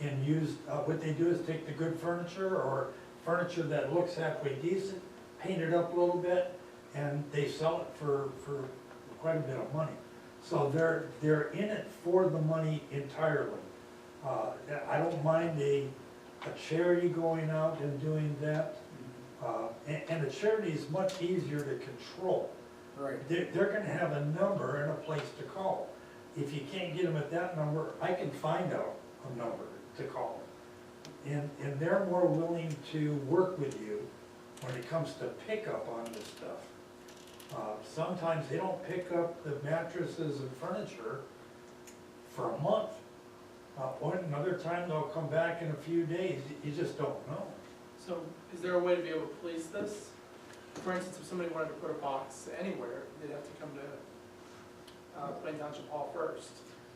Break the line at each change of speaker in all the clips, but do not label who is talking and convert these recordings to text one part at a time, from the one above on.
and use, uh, what they do is take the good furniture or furniture that looks halfway decent, paint it up a little bit, and they sell it for, for quite a bit of money. So they're, they're in it for the money entirely. Uh, I don't mind a, a charity going out and doing that. Uh, and, and a charity is much easier to control.
Right.
They're, they're gonna have a number and a place to call. If you can't get them at that number, I can find out a number to call. And, and they're more willing to work with you when it comes to pickup on this stuff. Uh, sometimes they don't pick up the mattresses and furniture for a month. Uh, or another time they'll come back in a few days, you just don't know.
So is there a way to be able to police this? For instance, if somebody wanted to put a box anywhere, they'd have to come to uh, Plain Township Hall first.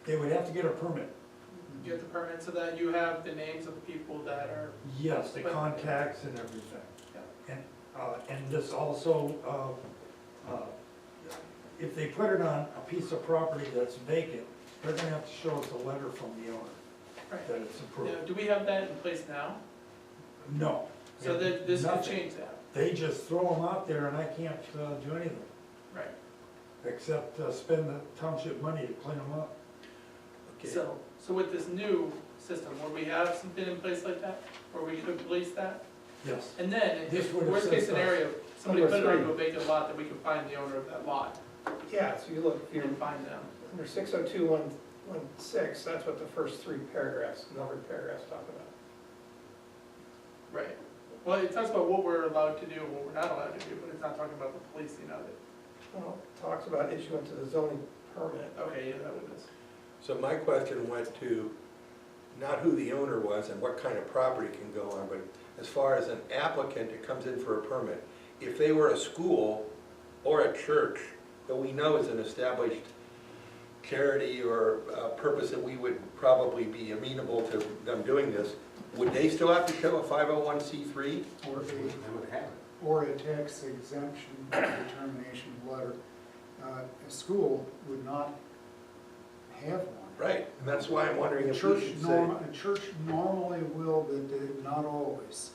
They would have to get a permit.
Mm-hmm.
Get the permit so that you have the names of the people that are,
Yes, the
But-
contacts and everything. And, uh, and this also, uh, uh, if they put it on a piece of property that's vacant, they're gonna have to show us a letter from the owner
right.
that it's
Now,
approved.
do we have that in place now?
No.
So that this could
Nothing.
change that,
They just throw them out there and I can't, uh, do anything,
right?
except, uh, spend the township money to clean them up.
Okay,
So, so with this new system, where we have something in place like that, where we could police that?
Yes.
And then,
This would have
worst case
saved us.
scenario, somebody
Number
put it onto
three.
a vacant lot, that we could find the owner of that lot
Yeah, so you look, if you're
and find them.
under six oh two one, one six, that's what the first three paragraphs, numbered paragraphs talk about.
Right. Well, it talks about what we're allowed to do and what we're not allowed to do, but it's not talking about the policing of it.
Well, it talks about issuance of the zoning permit.
Okay, yeah, that would miss.
so my question went to not who the owner was and what kind of property can go on, but as far as an applicant that comes in for a permit, if they were a school or a church that we know is an established charity or uh purpose that we would probably be amenable to them doing this, would they still have to show a 501c3?
Or a,
would have it.
or a tax exemption determination letter. Uh, A school would not have one.
Right, and that's why I'm wondering
A
if we
church
should say.
norm, a church normally will, but uh, not always.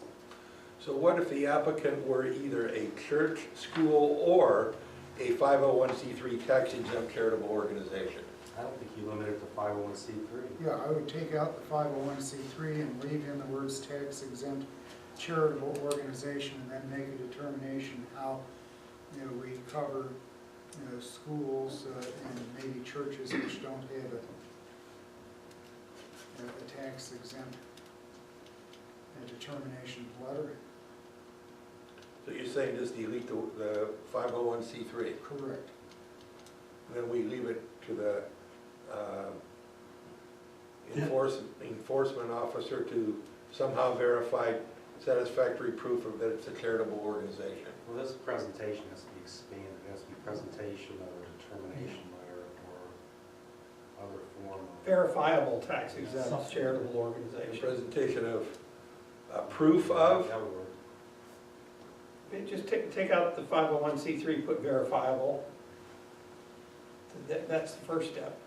So what if the applicant were either a church, school, or a 501c3 tax exempt charitable organization?
I don't think you limit it to five oh one C three.
Yeah, I would take out the five oh one C three and leave in the words tax exempt charitable organization and then make a determination how, you know, we cover, you know, schools uh, and maybe churches which don't have a, a- a tax exempt a determination letter,
So you're saying just delete the the 501c3,
correct.
then we leave it to the uh, enforce- enforcement officer to somehow verify satisfactory proof of that it's a charitable organization?
Well, this presentation has to be expanded, it has to be presentation or determination letter or other form of.
Verifiable tax exempt charitable
A
organization.
presentation of uh, proof of?
That would work.
It- Just take, take out the five oh one C three, put verifiable. That, that's the first step.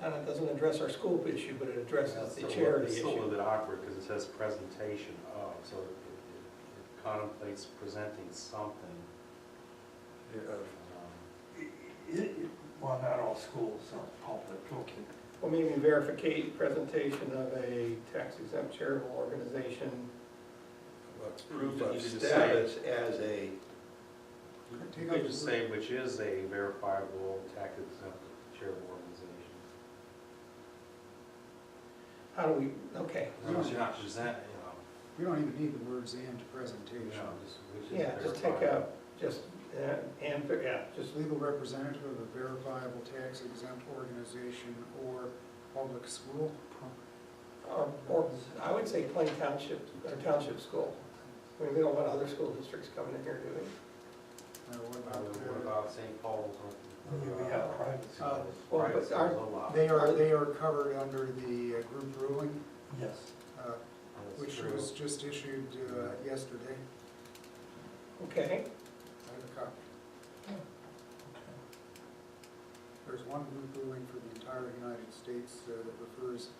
And it doesn't address our school issue, but it addresses the
It's still a-
charity
It's
issue.
still a little bit awkward because it says presentation of, so it- it it contemplates presenting something.
uh,
um,
It- it- Well, not all schools are public, okay.
Well, maybe verificate presentation of a tax exempt charitable organization.
uh, Proof
You
of
just say-
status as a
Um, You could just say which is a verifiable tax exempt charitable organization.
How do we, okay,
As long as you're not presenting, you know.
We don't even need the words and presentation.
No, just- which is
yeah, just take
verifiable.
out, just, uh, and, yeah, just,
Just legal representative of a verifiable tax exempt organization or public school.
or, um, or, I would say plain township, or township school. I mean, we don't want other school districts coming in here, do we?
Now, what
Uh,
about
What
the-
about St. Paul's?
We have private
Uh,
schools,
Well, but aren't-
They are, they are covered under the uh, group ruling,
yes.
uh, which was just issued uh, yesterday.
Okay,
I have a copy. There's one group ruling for the entire United States uh, that refers